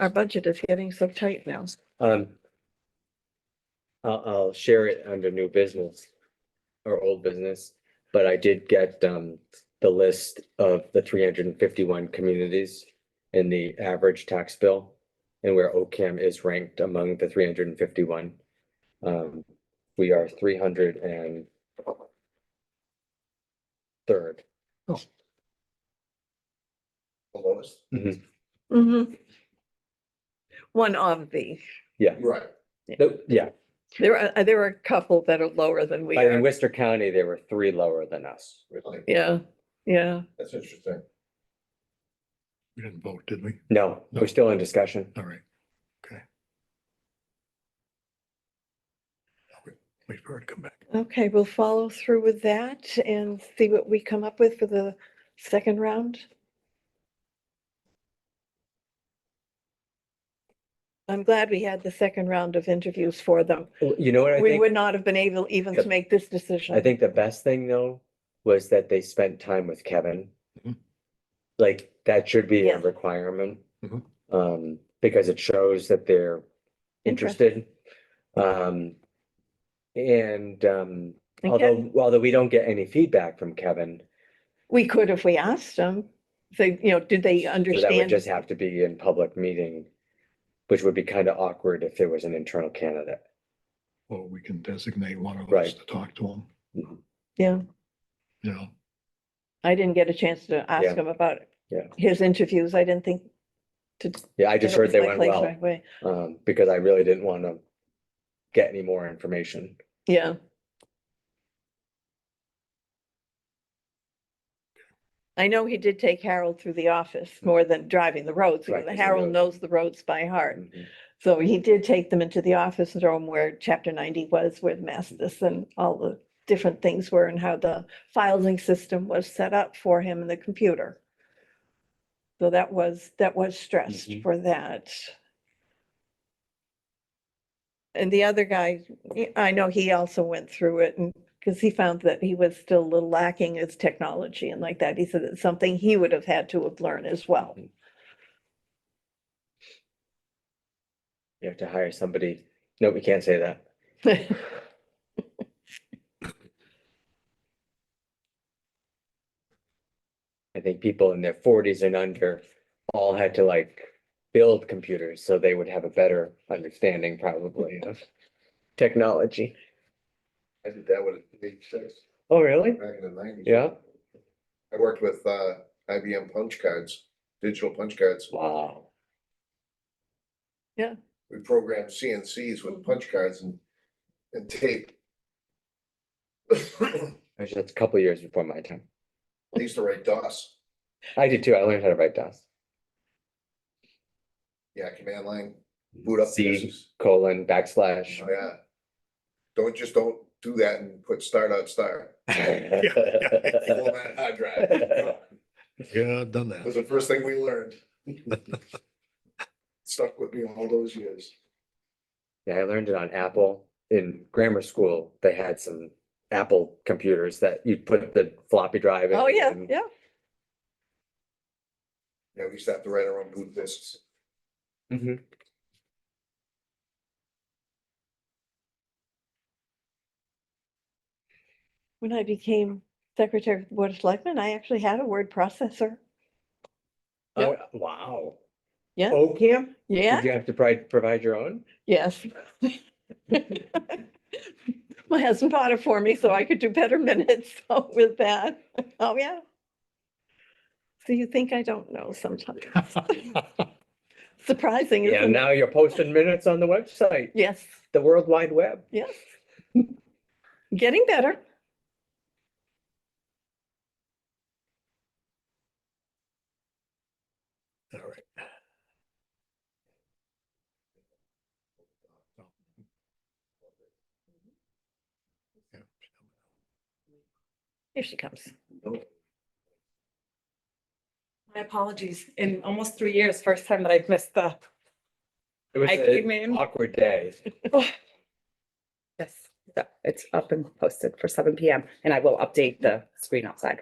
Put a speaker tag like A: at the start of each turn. A: Our budget is getting so tight now.
B: Um. I'll, I'll share it under new business or old business, but I did get, um, the list of the three hundred and fifty-one communities in the average tax bill and where OCAM is ranked among the three hundred and fifty-one. Um, we are three hundred and third.
C: the lowest.
A: Mm-hmm. One of the,
C: Right.
B: Nope, Yeah,
A: there are, uh, there are a couple that are lower than we
B: but in
A: are.
B: Worcester County, there were three lower than us.
C: Really?
A: Yeah, yeah.
C: That's interesting.
D: We didn't vote, did we?
B: No, we're still in discussion.
D: All right. Okay. Wait for her to come back.
A: Okay, we'll follow through with that and see what we come up with for the second round. I'm glad we had the second round of interviews for them.
B: You know what I think?
A: We would not have been able even to
B: Yep.
A: make this decision.
B: I think the best thing though was that they spent time with Kevin.
D: Mhm.
B: Like that should be a
A: Yeah.
B: requirement.
D: Mhm.
B: Um, because it shows that they're interested. Um, and um,
A: And Kev-
B: although, although we don't get any feedback from Kevin,
A: We could if we asked them, say, you know, did they
B: so that would
A: understand?
B: just have to be in public meeting, which would be kind of awkward if there was an internal candidate.
D: Or we can designate one of us
B: Right.
D: to talk to them,
C: Mm-hmm.
A: Yeah,
D: you know?
A: I didn't get a chance to
B: Yeah.
A: ask him about
B: Yeah.
A: his interviews. I didn't think. to
B: Yeah, I just
A: get it
B: heard they
A: my
B: went
A: place
B: well,
A: right away.
B: um, because I really didn't want to get any more information.
A: Yeah. I know he did take Harold through the office more than driving the roads.
B: Hmm. Right,
A: because
B: 'cause he
A: Harold
B: knows.
A: knows the roads by heart.
B: Mm-hmm.
A: So he did take them into the office and show them where chapter ninety was, where the Mastis and all the different things were and how the filing system was set up for him in the computer. So that was, that was stressed
B: Mhm.
A: for that. And the other guy, y- I know he also went through it and, because he found that he was still a little lacking his technology and like that. He said it's something he would have had to have learned as well.
B: You have to hire somebody. No, we can't say that. I think people in their forties and under all had to like build computers, so they would have a better understanding probably of technology.
C: I did that with eight six
B: Oh, really?
C: back in the nineties.
B: Yeah.
C: I worked with uh IBM punch cards, digital punch cards.
B: Wow.
C: We programmed CNCs with punch cards and and tape. I
B: Actually, That's a couple years before my time.
C: used to write DOS,
B: I did too. I learned how to write DOS.
C: yeah, command line, boot up.
B: C
C: this.
B: colon backslash.
C: Oh, Yeah. Don't, just don't do that and put start out start. Format hard drive.
D: Yeah, I've done
C: was
D: that.
C: the first thing we learned. Stuck with me all those years.
B: Yeah, I learned it on Apple. In grammar school, they had some Apple computers that you'd put the floppy drive in.
A: Oh, yeah,
B: and-
A: yeah.
C: Yeah, we used to have to write our own boot discs. Mm-hmm.
B: Mhm.
A: When I became secretary of the Board of Selectmen, I actually had a word processor.
B: Oh, wow.
A: Yeah.
B: OCAM?
A: Yeah.
B: Did you have to provide, provide your own?
A: Yes. My husband bought it for me so I could do better minutes so with that. Oh, yeah. So you think I don't know sometimes. Surprising,
B: Yeah,
A: isn't it?
B: now you're posting minutes on the website,
A: Yes,
B: the World Wide Web.
A: yes. Getting better.
D: All right. Yeah.
A: Here she comes.
E: My apologies. In almost three years, first time that I've missed the,
B: It was
E: I came
B: an
E: in.
B: awkward day.
E: Yes, so it's up and posted for seven PM and I will update the screen outside.